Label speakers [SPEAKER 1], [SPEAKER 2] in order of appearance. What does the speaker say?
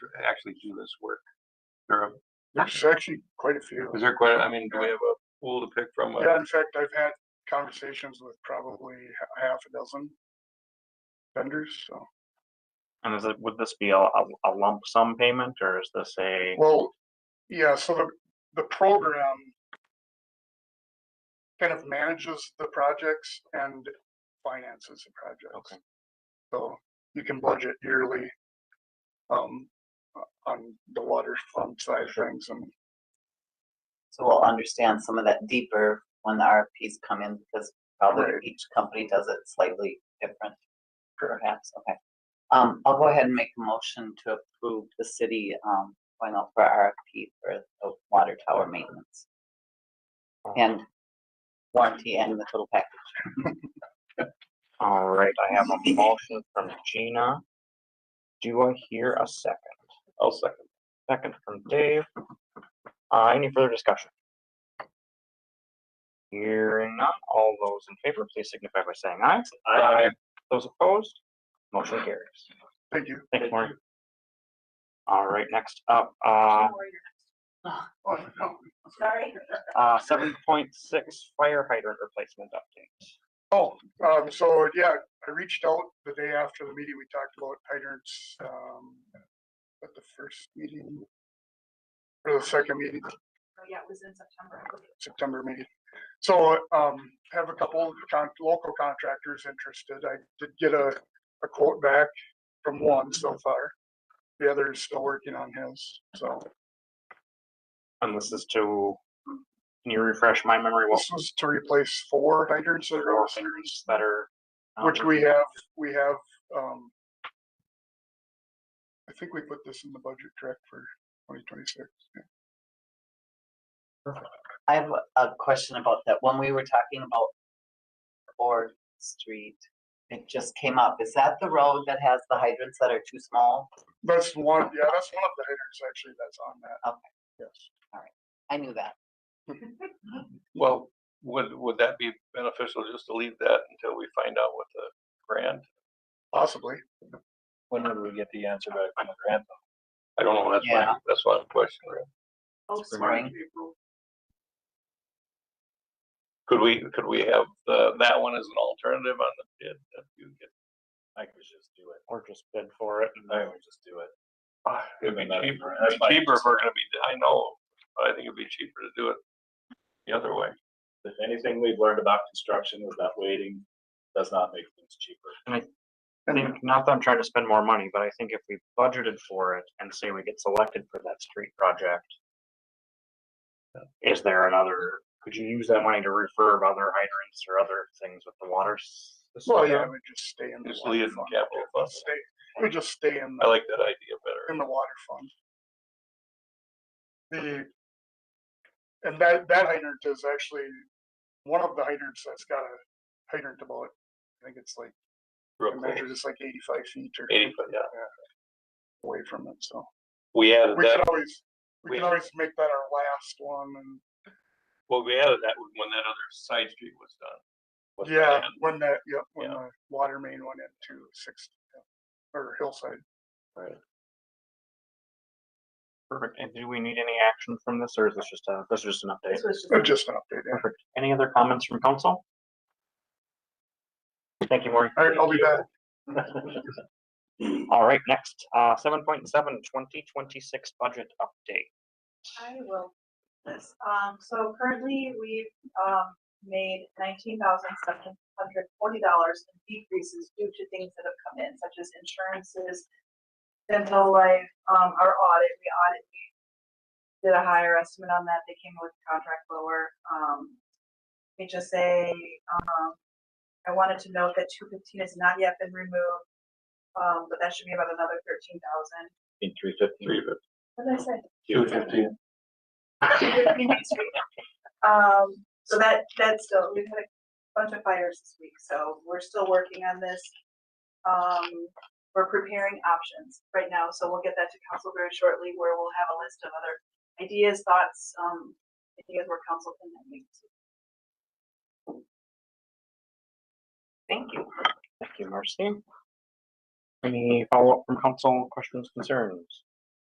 [SPEAKER 1] actually do this work? There, are-
[SPEAKER 2] There's actually quite a few.
[SPEAKER 1] is there quite, I mean, do we have a pool to pick from?
[SPEAKER 2] Yeah, in fact, I've had conversations with probably h- half a dozen vendors, so.
[SPEAKER 3] And is it, would this be a, a a lump sum payment or is this a,
[SPEAKER 2] Well, yeah, so the, the program kind of manages the projects and finances the projects.
[SPEAKER 1] Okay.
[SPEAKER 2] So you can budget yearly um, o- on the water fund side of things and
[SPEAKER 4] So we'll understand some of that deeper when the RFPs come in, because probably
[SPEAKER 2] Right.
[SPEAKER 4] each company does it slightly different.
[SPEAKER 2] Correct.
[SPEAKER 4] Perhaps, okay. Um, I'll go ahead and make a motion to approve the city, um, going out for RFP for the water tower maintenance. And warranty and the total package.
[SPEAKER 3] all right, I have a motion from Gina. Do I hear a second?
[SPEAKER 1] I'll second.
[SPEAKER 3] Second from Dave. Uh, any further discussion? Hearing none, all those in favor, please signify by saying aye.
[SPEAKER 1] Aye.
[SPEAKER 3] Those opposed, motion carries.
[SPEAKER 2] thank you.
[SPEAKER 3] Thanks, Maureen. All right, next up, uh,
[SPEAKER 2] Oh, no.
[SPEAKER 4] Sorry.
[SPEAKER 3] uh, seven point six fire hydrant replacement update.
[SPEAKER 2] Oh, um, so yeah, I reached out the day after the meeting, we talked about hydrants, um, at the first meeting. Or the second meeting,
[SPEAKER 5] Oh, yeah, it was in September.
[SPEAKER 2] September meeting. So, um, have a couple of con- local contractors interested. I did get a, a quote back from one so far. The other is still working on his, so
[SPEAKER 3] And this is to, can you refresh my memory? What
[SPEAKER 2] this was to replace four hydrants that are.
[SPEAKER 3] four
[SPEAKER 2] all
[SPEAKER 3] fingers that are? not
[SPEAKER 2] Which we
[SPEAKER 3] working?
[SPEAKER 2] have, we have, um. I think we put this in the budget, correct, for twenty twenty-six?
[SPEAKER 4] I have a- a question about that. When we were talking about Ford Street, it just came up. Is that the road that has the hydrants that are too small?
[SPEAKER 2] That's one, yeah, that's one of the headers actually that's on that.
[SPEAKER 4] Okay.
[SPEAKER 2] Yes.
[SPEAKER 4] I knew that.
[SPEAKER 1] Well, would, would that be beneficial just to leave that until we find out what the grant?
[SPEAKER 2] Possibly.
[SPEAKER 1] When would we get the answer back from the grant? I don't know, that's my,
[SPEAKER 4] Yeah.
[SPEAKER 1] that's my question.
[SPEAKER 5] Oh,
[SPEAKER 4] Spring.
[SPEAKER 5] spring.
[SPEAKER 1] Could we, could we have the, that one as an alternative on the bid? that you get?
[SPEAKER 6] I could just do it.
[SPEAKER 3] Or just bid for it and
[SPEAKER 6] I would just do it.
[SPEAKER 1] Ah, It'd be
[SPEAKER 6] Even that-
[SPEAKER 1] cheaper,
[SPEAKER 6] that's
[SPEAKER 1] it'd
[SPEAKER 6] my
[SPEAKER 1] be cheaper if we're gonna be, I know, but I think it'd be cheaper to do it the other way.
[SPEAKER 6] If anything we've learned about construction is that waiting does not make things cheaper.
[SPEAKER 3] I think, not that I'm trying to spend more money, but I think if we budgeted for it and say we get selected for that street project. Is there another, could you use that money to refurb other hydrants or other things with the water? s- system?
[SPEAKER 2] Well, yeah, we just stay in. the
[SPEAKER 1] Just
[SPEAKER 2] water
[SPEAKER 1] leave it in
[SPEAKER 2] fund.
[SPEAKER 1] capital fund. Oh.
[SPEAKER 2] Stay, we just stay in,
[SPEAKER 1] I
[SPEAKER 2] the
[SPEAKER 1] like that idea better.
[SPEAKER 2] in the water fund. The. And that, that hydrant is actually one of the hydrants that's got a hydrant about, I think it's like, I
[SPEAKER 1] Real close.
[SPEAKER 2] measured it's like eighty-five feet or.
[SPEAKER 1] Eighty foot, yeah.
[SPEAKER 2] away from it, so.
[SPEAKER 1] We added
[SPEAKER 2] We
[SPEAKER 1] that,
[SPEAKER 2] could always, we
[SPEAKER 1] we-
[SPEAKER 2] could always make that our last one and,
[SPEAKER 1] well, we added that when that other side street was done. with the
[SPEAKER 2] yeah,
[SPEAKER 1] land.
[SPEAKER 2] when that, yep, when
[SPEAKER 1] Yeah.
[SPEAKER 2] the water main went into six, or hillside.
[SPEAKER 3] Perfect. And do we need any action from this or is this just a, this is just an update?
[SPEAKER 5] This was just.
[SPEAKER 2] Uh, Just an update, yeah.
[SPEAKER 3] Perfect. Any other comments from council? Thank you, Maureen.
[SPEAKER 2] All right, I'll be back.
[SPEAKER 3] All right, next, uh, 7.7, 2026 budget update.
[SPEAKER 5] I will. This, um, so currently we've, um, made nineteen thousand seven hundred forty dollars in decreases due to things that have come in, such as insurances, dental life, um, our audit, we audit, we did a higher estimate on that, they came with contract lower, um, HSA, um, I wanted to note that two fifteen has not yet been removed, um, but that should be about another thirteen thousand.
[SPEAKER 6] In three fifteen.
[SPEAKER 1] Three fifty.
[SPEAKER 5] What did I say?
[SPEAKER 1] Two fifteen.
[SPEAKER 5] Um, so that, that's still, we've had a bunch of fires this week, so we're still working on this. Um, we're preparing options right now, so we'll get that to council very shortly, where we'll have a list of other ideas, thoughts, um, ideas where council can then meet.
[SPEAKER 3] Thank you. Thank you, Marcy. Any follow-up from council, questions, concerns?